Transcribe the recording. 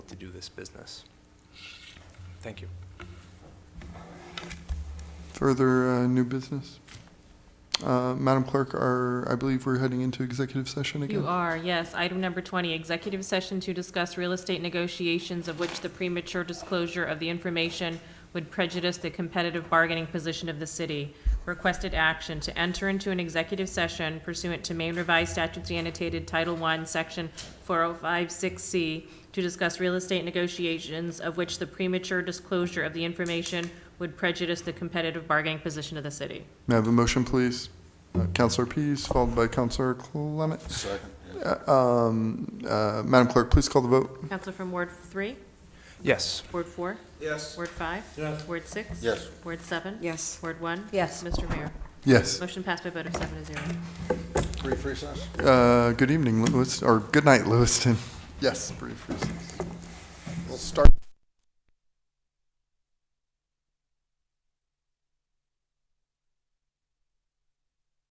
this business. Thank you. Further uh, new business? Uh, Madam Clerk, are, I believe we're heading into executive session again? You are, yes. Item number 20, executive session to discuss real estate negotiations of which the premature disclosure of the information would prejudice the competitive bargaining position of the city. Requested action to enter into an executive session pursuant to Maine Revised Statutes Annotated Title I, Section 4056C, to discuss real estate negotiations of which the premature disclosure of the information would prejudice the competitive bargaining position of the city. May I have a motion, please? Uh, Counselor Pease, followed by Counselor Clement. Second. Uh, um, uh, Madam Clerk, please call the vote. Counselor from Ward 3? Yes. Ward 4? Yes. Word five? Yes. Word six? Yes. Word seven? Yes. Word one? Yes. Mr. Mayor, Yes. motion passed by a vote of seven to zero. Brief recess? Uh, Good evening, Lewis, or good night, Lewiston. Yes, brief recess. We'll start.